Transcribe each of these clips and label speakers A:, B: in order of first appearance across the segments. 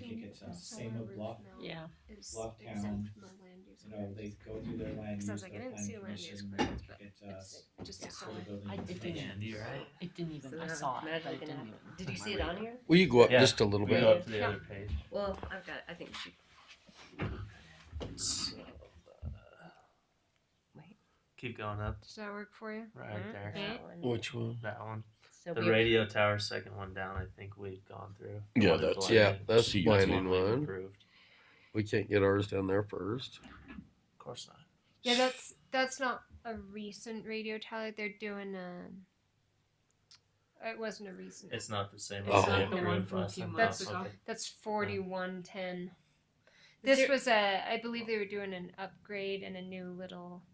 A: it's uh,
B: The
A: same
B: solar
A: with
B: roof
A: Bluff,
B: mount
C: Yeah,
B: Is
A: Bluff
B: exempt
A: Town,
B: from the land use.
A: you know, they go through their land use,
B: Because I was
A: their
B: like, I didn't see
A: planning
B: a land use
A: commission,
B: clearance, but
A: get, uh,
B: It's just a
A: sort of
B: solar.
A: building
C: I did
A: information.
C: that.
D: you're right.
C: it didn't
E: So
C: even,
E: now
C: I
E: I'm
C: saw it,
E: not
C: but it
E: looking
C: didn't
E: at-
C: even-
E: Did you
C: my
E: see it on
C: radar.
E: here?
F: Will you go up
D: Yeah.
F: just a little
D: We
F: bit?
D: go up to the
B: Yeah.
D: other page.
E: Well, I've got. I think she. Wait,
D: Keep going up.
B: Does that work for you?
D: Right
E: mm,
D: there.
E: that one.
F: Which one?
D: That one.
E: So
D: The
E: we-
D: radio tower, second one down. I think we've gone through.
F: Yeah,
D: Or the
F: that's- yeah,
D: blended.
F: that's the blended
D: we've
F: one.
D: Approved.
F: We can't get ours down there first.
D: Of course not.
B: Yeah, that's, that's not a recent radio tally, they're doing a. It wasn't a recent,
D: It's not the same.
C: It's
D: as
F: not
D: what
C: the
D: we
C: one
D: approved
C: from a
D: last
C: few
D: time.
B: months
D: Okay.
C: ago.
B: that's forty-one ten. This
E: there-
B: was a, I believe they were doing an upgrade and a new little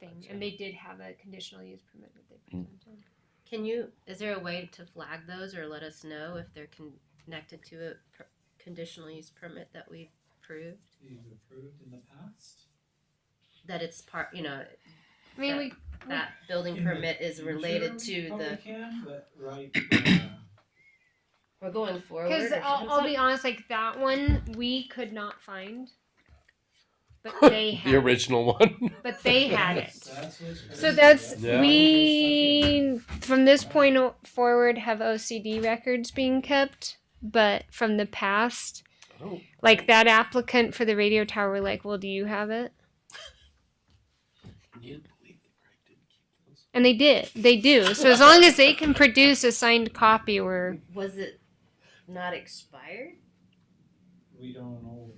B: thing, and they did have a conditional use permit that they presented.
E: Can you? Is there a way to flag those or let us know if they're con- connected to a per- conditional use permit that we approved?
A: We've approved in the past.
E: That it's part. You know,
B: I mean,
E: Yeah.
B: we,
E: that building
A: In the
E: permit is related to
A: Usually, oh, we
E: the.
A: can, but right, uh,
E: We're going forward.
B: Because
E: or
B: I'll, I'll
E: something.
B: be honest, like that one we could not find, but they had.
F: The original one.
B: It. But they had it.
A: that's what's
B: So
A: crazy,
B: that's
F: Yeah.
B: we from this point o- forward have OCD records being kept, but from the past,
F: Oh.
B: like that applicant for the radio tower, we're like, well, do you have it? And they did. They do. So as long as they can produce a signed copy, we're
E: Was it not expired?
A: We don't know.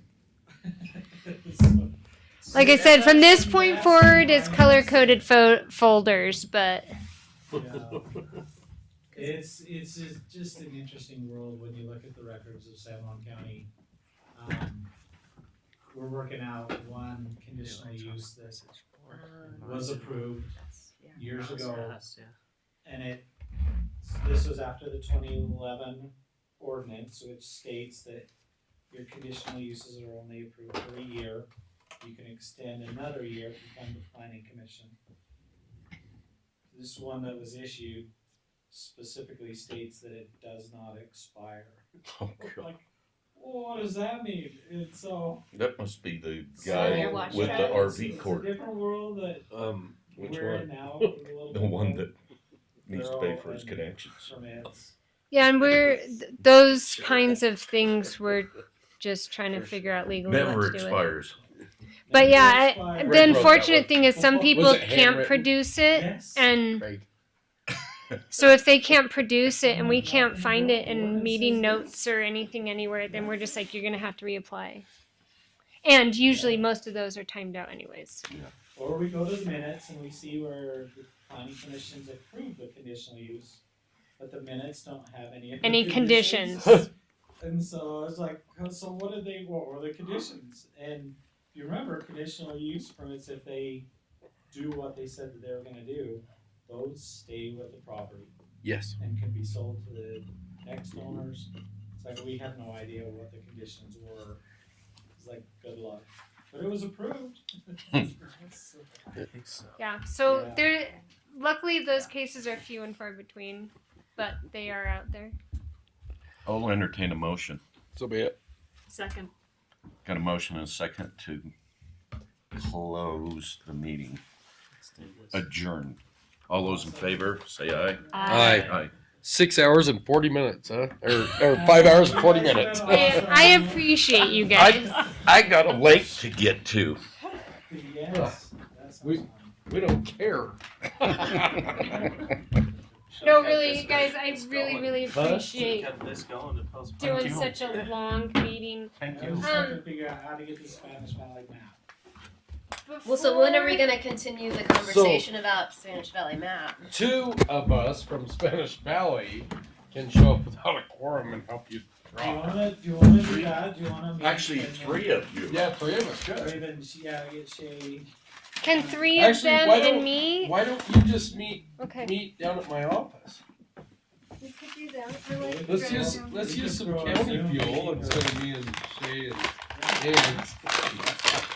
A: So-
B: like I said, from this point forward is color coded fo- folders, but.
A: Yeah. It's, it's just- just an interesting world when you look at the records of San Juan County. Um, We're working out one conditional use that was approved
E: Um, That's, yeah.
A: years
D: That was
A: ago,
D: fast, yeah.
A: and it, this was after the twenty eleven ordinance, which states that your conditional uses are only approved for a year. You can extend another year if you come to planning commission. This one that was issued specifically states that it does not expire.
G: Oh, God.
A: Like, what does that mean? It's so.
G: That must be the
E: So
G: guy
E: you're watching
G: with
E: that.
G: the
A: Yeah, it's-
G: RV
A: it's a
G: court,
A: Different world that
F: Um, which
A: we're in
F: one?
A: now. a little
G: the
A: bit
G: one
A: different
G: that needs to
A: They're
G: pay
A: all
G: for his
A: in.
G: connections.
A: Permits.
B: Yeah, and we're th- those kinds of things we're just trying to
F: For
B: figure out legally
G: Never
B: what to do with.
G: expires.
B: But
A: Never
B: yeah, I,
A: expires.
B: the
F: Rick wrote that
B: unfortunate
F: one.
B: thing is some
A: Was
B: people
F: it
B: can't
F: handwritten?
B: produce it,
A: Yes.
B: and
F: Right.
B: so if they can't produce it and we can't find it in meeting notes or anything anywhere, then we're just like you're gonna have to reapply. And usually, most of those are timed out anyways.
A: Or we go to the minutes and we see where the planning commissions approved the conditional use, but the minutes don't have any. of the
B: Any conditions?
A: And so I was like, "Oh, so what did they, what were the conditions? And you remember conditional use permits, if they do what they said that they were gonna do, those stay with the property
F: Yes.
A: and can be sold to the next owners. It's like, we have no idea what the conditions were. It's like, good luck. But it was approved.
D: I think so.
B: Yeah. So
A: Yeah.
B: there, luckily, those cases are few and far between, but they are out there.
G: I'll entertain Oh, a motion.
F: So be it.
C: Second.
G: Got a motion and a second to close the meeting,
D: Let's do this.
G: adjourn. All those in favor, say aye.
E: Uh,
F: Aye.
G: Aye.
F: Six hours and forty minutes, huh? Or, or five hours and forty minutes.
B: I, I appreciate you guys.
G: I got a lake to get to.
A: Yes, that sounds
F: We-
A: fun.
F: We don't care.
B: No,
G: Should've had
B: really,
G: this
B: you guys,
G: thing
B: I really,
G: going.
B: really appreciate
D: Kept this going to postpone.
B: doing such a long meeting.
D: Thank
A: I
D: you.
A: was trying to figure out how to get the Spanish Valley map.
E: Well, so when are we
B: Before-
E: gonna continue the conversation about Spanish Valley map?
F: Two of us from Spanish Valley can show up without a quorum and help you
A: Do you
F: draw.
A: wanna, do you wanna do that, do you wanna? meet
G: Actually,
A: and then-
G: three of you.
F: Yeah, three of us
A: Or
F: could.
A: even, she gotta get Shay,
B: Can three of
F: Actually,
B: them
F: why don't-
B: and me?
F: Why don't you just meet
B: Okay.
F: meet down at my office?
B: We could do that. I
A: like
F: Let's
A: Right.
F: use let's use some county fuel instead of me and Shay and Ann.